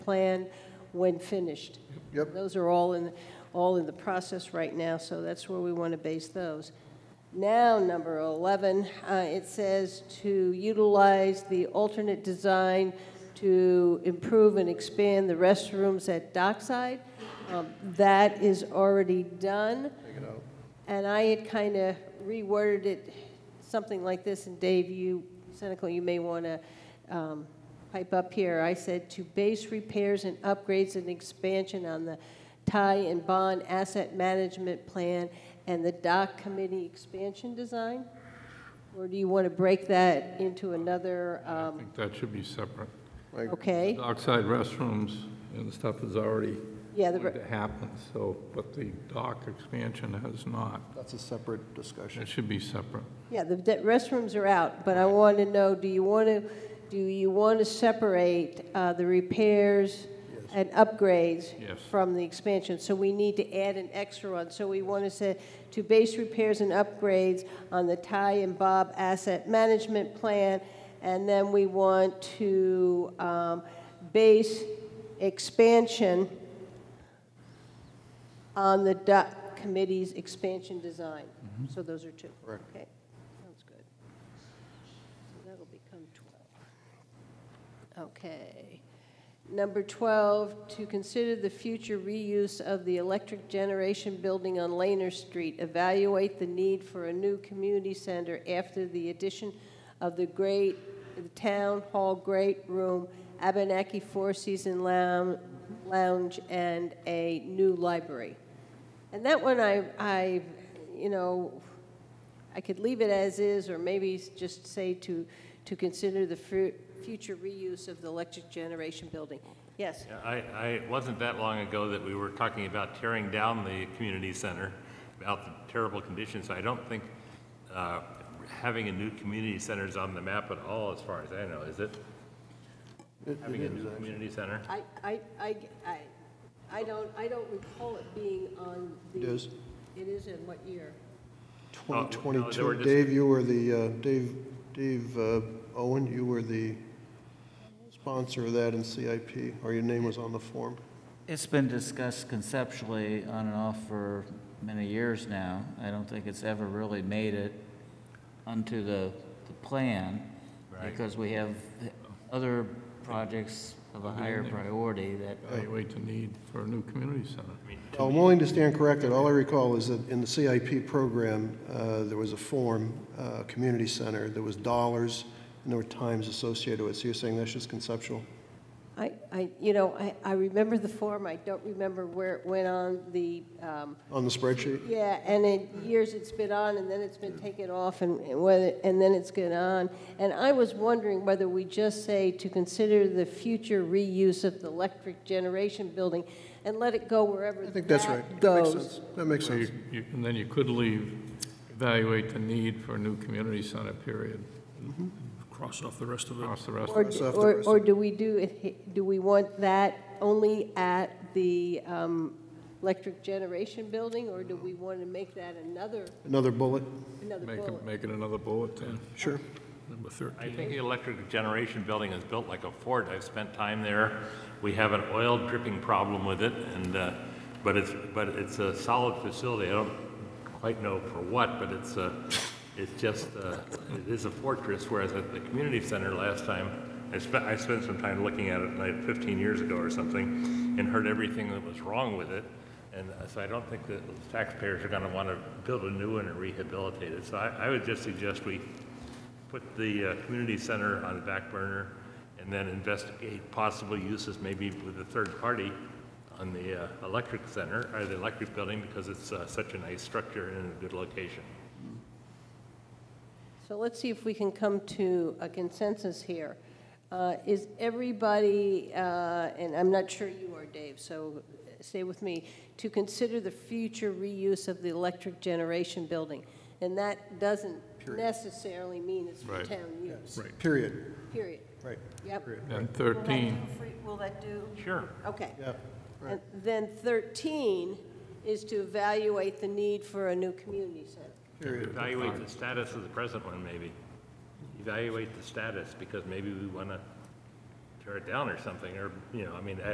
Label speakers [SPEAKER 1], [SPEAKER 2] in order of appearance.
[SPEAKER 1] plan when finished.
[SPEAKER 2] Yep.
[SPEAKER 1] Those are all in, all in the process right now, so that's where we want to base those. Now, number 11, uh, it says to utilize the alternate design to improve and expand the restrooms at Dockside. Um, That is already done.
[SPEAKER 2] Take it out.
[SPEAKER 1] And I had kind of reworded it something like this, and Dave, you, Senecal, you may want to um, pipe up here. I said, "To base repairs and upgrades and expansion on the tie and bond asset management plan and the dock committee expansion design?" Or do you want to break that into another,
[SPEAKER 3] I
[SPEAKER 1] um,
[SPEAKER 3] think that should be separate.
[SPEAKER 2] Like,
[SPEAKER 1] okay?
[SPEAKER 3] Dockside restrooms and the stuff is already
[SPEAKER 1] Yeah, the
[SPEAKER 3] going
[SPEAKER 1] re-
[SPEAKER 3] to happen, so, but the dock expansion has not.
[SPEAKER 2] that's a separate discussion.
[SPEAKER 3] It should be separate.
[SPEAKER 1] yeah, the de- restrooms are out, but I want to know, do you want to, do you want to separate uh, the repairs and upgrades
[SPEAKER 3] Yes.
[SPEAKER 1] from the expansion, so we need to add an extra one. So we want to say, to base repairs and upgrades on the Ty and Bob asset management plan, and then we want to um, base expansion on the DUC committee's expansion design. So those are two.
[SPEAKER 2] Correct.
[SPEAKER 1] Okay, sounds good. So that'll become 12. Okay. Number 12, to consider the future reuse of the electric generation building on Laner Street. Evaluate the need for a new community center after the addition of the great, the town hall great room, Abenaki Four Season Lounge, Lounge, and a new library. And that one, I, I, you know, I could leave it as is, or maybe s- just say to, to consider the fu- future reuse of the electric generation building. Yes,
[SPEAKER 4] Yeah, I, I, it wasn't that long ago that we were talking about tearing down the community center, about the terrible conditions. I don't think uh, having a new community center is on the map at all, as far as I know, is it?
[SPEAKER 2] It- it
[SPEAKER 4] Having a
[SPEAKER 2] is,
[SPEAKER 4] new
[SPEAKER 2] actually.
[SPEAKER 4] community center?
[SPEAKER 1] I, I, I, I, I don't, I don't recall it being on the.
[SPEAKER 2] It is.
[SPEAKER 1] It is in what year?
[SPEAKER 4] uh, no, they were
[SPEAKER 2] 2022,
[SPEAKER 4] just-
[SPEAKER 2] Dave, you were the, uh, Dave, Dave uh, Owen, you were the sponsor of that in CIP, or your name was on the form.
[SPEAKER 5] It's been discussed conceptually on and off for many years now. I don't think it's ever really made it onto the, the plan.
[SPEAKER 4] Right.
[SPEAKER 5] Because we have other projects of a higher priority that,
[SPEAKER 3] Evaluate the need for a new community center.
[SPEAKER 2] Now, I'm willing to stand corrected. All I recall is that in the CIP program, uh, there was a form, uh, community center, there was dollars, and there were times associated with it. So you're saying that's just conceptual?
[SPEAKER 1] I, I, you know, I, I remember the form, I don't remember where it went on the, um,
[SPEAKER 2] On the spreadsheet?
[SPEAKER 1] Yeah, and in years it's been on, and then it's been taken off, and and whether, and then it's gone on. And I was wondering whether we just say to consider the future reuse of the electric generation building and let it go wherever
[SPEAKER 2] I think that's
[SPEAKER 1] that
[SPEAKER 2] right. That makes
[SPEAKER 1] goes.
[SPEAKER 2] sense. That makes
[SPEAKER 3] So you-
[SPEAKER 2] sense.
[SPEAKER 3] you- And then you could leave, evaluate the need for a new community center, period.
[SPEAKER 6] Mm-hmm. cross off the rest of it.
[SPEAKER 3] Cross the rest.
[SPEAKER 1] Or,
[SPEAKER 2] Cross
[SPEAKER 1] d-
[SPEAKER 2] off the
[SPEAKER 1] or,
[SPEAKER 2] rest.
[SPEAKER 1] or do we do, it he- do we want that only at the um, electric generation building, or do we want to make that another,
[SPEAKER 2] Another bullet?
[SPEAKER 1] another
[SPEAKER 3] Make it,
[SPEAKER 1] bullet?
[SPEAKER 3] make it another bullet then.
[SPEAKER 2] Sure.
[SPEAKER 6] Number 13.
[SPEAKER 4] I think the electric generation building is built like a fort. I've spent time there. We have an oil dripping problem with it, and, uh, but it's, but it's a solid facility. I don't quite know for what, but it's, uh, it's just, uh, it is a fortress, whereas at the community center last time, I spent, I spent some time looking at it, like 15 years ago or something, and heard everything that was wrong with it. And uh, so I don't think that taxpayers are going to want to build a new one and rehabilitate it. So I, I would just suggest we put the uh, community center on the back burner and then investigate possible uses, maybe with a third party on the uh, electric center, or the electric building, because it's uh, such a nice structure and in a good location.
[SPEAKER 1] So let's see if we can come to a consensus here. Uh, Is everybody, uh, and I'm not sure you are, Dave, so stay with me, to consider the future reuse of the electric generation building? And that doesn't necessarily mean it's for
[SPEAKER 3] Right.
[SPEAKER 1] town use,
[SPEAKER 3] Right.
[SPEAKER 2] Period.
[SPEAKER 1] period.
[SPEAKER 2] Right.
[SPEAKER 1] Yep.
[SPEAKER 3] And 13,
[SPEAKER 1] Will that do?
[SPEAKER 4] Sure.
[SPEAKER 1] Okay.
[SPEAKER 2] Yeah.
[SPEAKER 1] And then 13 is to evaluate the need for a new community center.
[SPEAKER 2] Period.
[SPEAKER 4] Evaluate the status of the present one, maybe. Evaluate the status, because maybe we want to tear it down or something, or, you know, I mean,